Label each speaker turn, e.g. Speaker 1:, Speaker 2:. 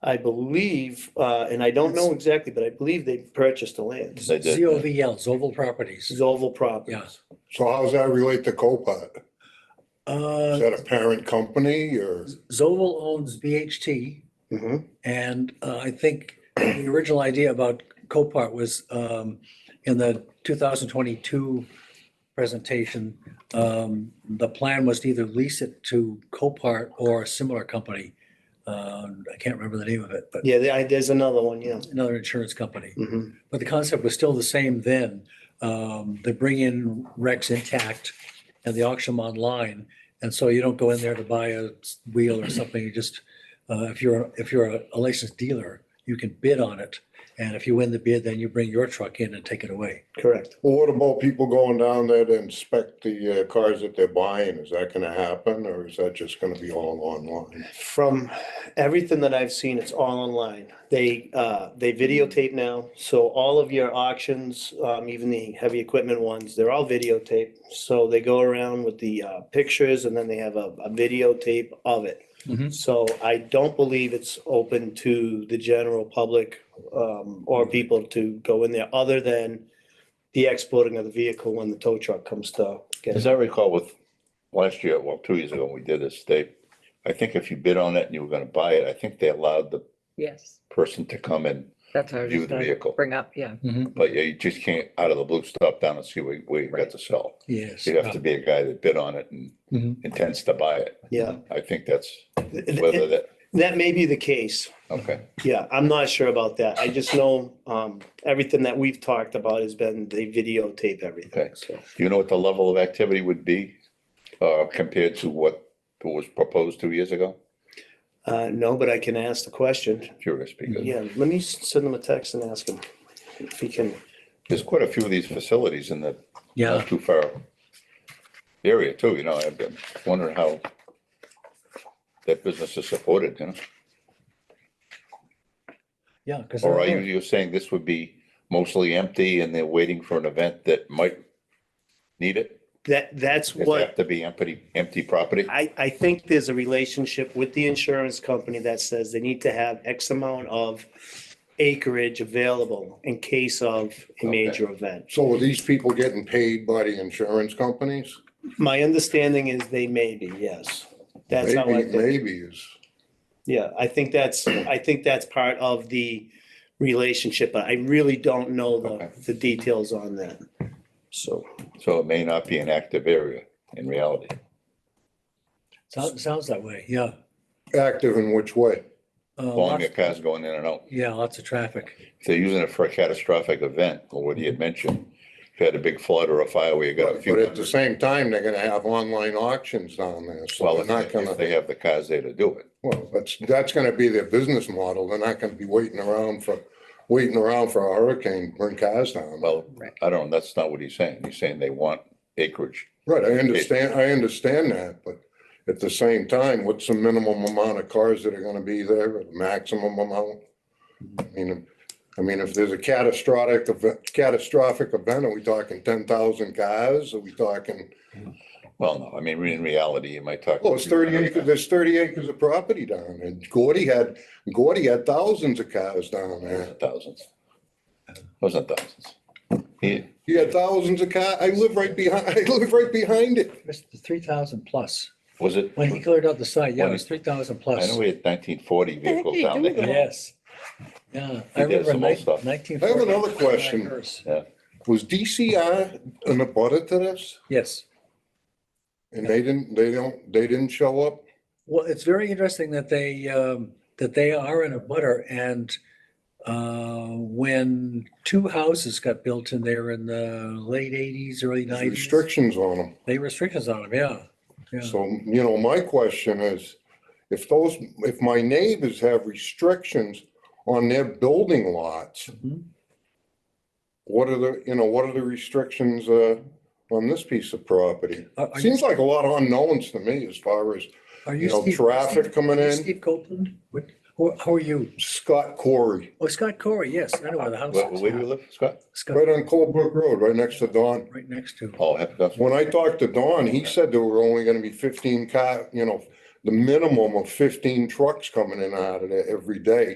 Speaker 1: I believe, uh, and I don't know exactly, but I believe they purchased the land.
Speaker 2: They did.
Speaker 3: ZOVL, Zoval Properties.
Speaker 1: Zoval Properties.
Speaker 4: So how does that relate to Copart? Is
Speaker 3: Uh,
Speaker 4: that a parent company or?
Speaker 3: Zoval owns BHT
Speaker 1: Mhm.
Speaker 3: and uh, I think the original idea about Copart was um, in the 2022 presentation. um, The plan was to either lease it to Copart or a similar company. Uh, I can't remember the name of it, but
Speaker 1: Yeah, there- I- there's another one, yeah.
Speaker 3: another insurance company.
Speaker 1: Mhm.
Speaker 3: But the concept was still the same then. Um, they bring in wrecks intact and they auction them online. And so you don't go in there to buy a s- wheel or something. You just, uh, if you're, if you're a- a licensed dealer, you can bid on it. And if you win the bid, then you bring your truck in and take it away.
Speaker 1: Correct.
Speaker 4: Well, what about people going down there to inspect the uh, cars that they're buying? Is that gonna happen or is that just gonna be all online?
Speaker 1: From everything that I've seen, it's all online. They, uh, they videotape now. So all of your auctions, um, even the heavy equipment ones, they're all videotaped. So they go around with the, uh, pictures and then they have a, a videotape of it.
Speaker 3: Mhm.
Speaker 1: So I don't believe it's open to the general public, um, or people to go in there other than the exporting of the vehicle when the tow truck comes to get
Speaker 2: As
Speaker 1: it.
Speaker 2: I recall with last year, well, two years ago, when we did this, they, I think if you bid on it and you were gonna buy it, I think they allowed the
Speaker 5: Yes,
Speaker 2: person to come and
Speaker 5: that's what I was
Speaker 2: View
Speaker 5: just
Speaker 2: the
Speaker 5: gonna
Speaker 2: vehicle.
Speaker 5: bring up, yeah.
Speaker 2: But yeah, you just can't out of the blue stop down and see where, where you got to sell.
Speaker 3: Yes.
Speaker 2: You'd have to be a guy that bid on it and
Speaker 3: Mhm.
Speaker 2: intends to buy it.
Speaker 1: Yeah.
Speaker 2: I think that's
Speaker 1: Th-
Speaker 2: whether
Speaker 1: th-
Speaker 2: that,
Speaker 1: That may be the case.
Speaker 2: okay,
Speaker 1: Yeah, I'm not sure about that. I just know, um, everything that we've talked about has been they videotape everything.
Speaker 2: Okay.
Speaker 1: So
Speaker 2: do you know what the level of activity would be? Uh, compared to what was proposed two years ago?
Speaker 1: Uh, no, but I can ask the question.
Speaker 2: Curious because
Speaker 1: Yeah, let me s- send them a text and ask them if he can.
Speaker 2: there's quite a few of these facilities in the
Speaker 3: Yeah.
Speaker 2: not too far area too, you know, I've been wondering how that business is supported, you know?
Speaker 3: Yeah. 'cause
Speaker 2: Or are
Speaker 3: they're-
Speaker 2: you, you're saying this would be mostly empty and they're waiting for an event that might need it?
Speaker 1: That, that's
Speaker 2: Does it
Speaker 1: what
Speaker 2: have to be empty, empty property?
Speaker 1: I, I think there's a relationship with the insurance company that says they need to have X amount of acreage available in case of a
Speaker 2: Okay.
Speaker 1: major event.
Speaker 4: So are these people getting paid by the insurance companies?
Speaker 1: My understanding is they may be, yes. That's how I
Speaker 4: Maybe,
Speaker 1: think.
Speaker 4: maybe is,
Speaker 1: Yeah, I think that's, I think that's part of the relationship, but I really don't know
Speaker 2: Okay.
Speaker 1: the, the details on that. So,
Speaker 2: So it may not be an active area in reality.
Speaker 3: Sounds, sounds that way. Yeah.
Speaker 4: active in which way?
Speaker 3: Uh,
Speaker 2: Long
Speaker 3: lots-
Speaker 2: your cars going in and out.
Speaker 3: Yeah, lots of traffic.
Speaker 2: If they're using it for a catastrophic event, or what he had mentioned, if you had a big flood or a fire where you got a few.
Speaker 4: But at the same time, they're gonna have online auctions down there, so
Speaker 2: Well,
Speaker 4: they're not
Speaker 2: if if
Speaker 4: gonna,
Speaker 2: they have the cars there to do it.
Speaker 4: well, that's, that's gonna be their business model. They're not gonna be waiting around for, waiting around for a hurricane, to bring cars down.
Speaker 2: Well,
Speaker 5: Right.
Speaker 2: I don't, that's not what he's saying. He's saying they want acreage.
Speaker 4: Right, I understand, I understand that, but at the same time, what's the minimum amount of cars that are gonna be there, or the maximum amount? I mean, I mean, if there's a catastrophic, event- catastrophic event, are we talking ten thousand cars? Are we talking,
Speaker 2: Well, no, I mean, in reality, you might talk.
Speaker 4: well, it's thirty acres, there's thirty acres of property down there. Gordy had, Gordy had thousands of cars down there.
Speaker 2: Thousands. Wasn't thousands. He,
Speaker 4: He had thousands of cars. I live right behind, I live right behind it.
Speaker 3: It's 3,000 plus.
Speaker 2: was it?
Speaker 3: When he cleared out the site, yeah, it
Speaker 2: When
Speaker 3: was 3,000
Speaker 2: I
Speaker 3: plus.
Speaker 2: know we had nineteen forty
Speaker 5: heck do
Speaker 2: vehicles
Speaker 5: you
Speaker 2: down
Speaker 5: do
Speaker 2: there.
Speaker 5: that?
Speaker 3: Yes. Yeah, I
Speaker 2: He
Speaker 3: remember
Speaker 2: did some old stuff.
Speaker 3: nineteen.
Speaker 4: I have another question. Was DCR in a butter to this?
Speaker 3: Yes.
Speaker 4: And they didn't, they don't, they didn't show up?
Speaker 3: Well, it's very interesting that they, um, that they are in a butter and uh, when two houses got built in there in the late eighties, early
Speaker 4: There's
Speaker 3: nineties.
Speaker 4: Restrictions on them.
Speaker 3: They restrictions on them, yeah. Yeah.
Speaker 4: So, you know, my question is, if those, if my neighbors have restrictions on their building lots,
Speaker 3: Mhm.
Speaker 4: what are the, you know, what are the restrictions, uh, on this piece of property?
Speaker 3: Are are you,
Speaker 4: Seems like a lot of unknowns to me as far as,
Speaker 3: are
Speaker 4: you
Speaker 3: you
Speaker 4: know,
Speaker 3: Steve?
Speaker 4: traffic coming
Speaker 3: are you
Speaker 4: in.
Speaker 3: Steve Copeland? What, who, who are you?
Speaker 4: Scott Corey,
Speaker 3: Oh, Scott Corey, yes, I know where the house
Speaker 2: Where, where do you
Speaker 3: is.
Speaker 2: live, Scott?
Speaker 3: Scott,
Speaker 4: right on Colebrook Road, right next to Don.
Speaker 3: right next to.
Speaker 2: Oh, heck, that's,
Speaker 4: When I talked to Don, he said there were only gonna be fifteen car, you know, the minimum of fifteen trucks coming in and out of there every day.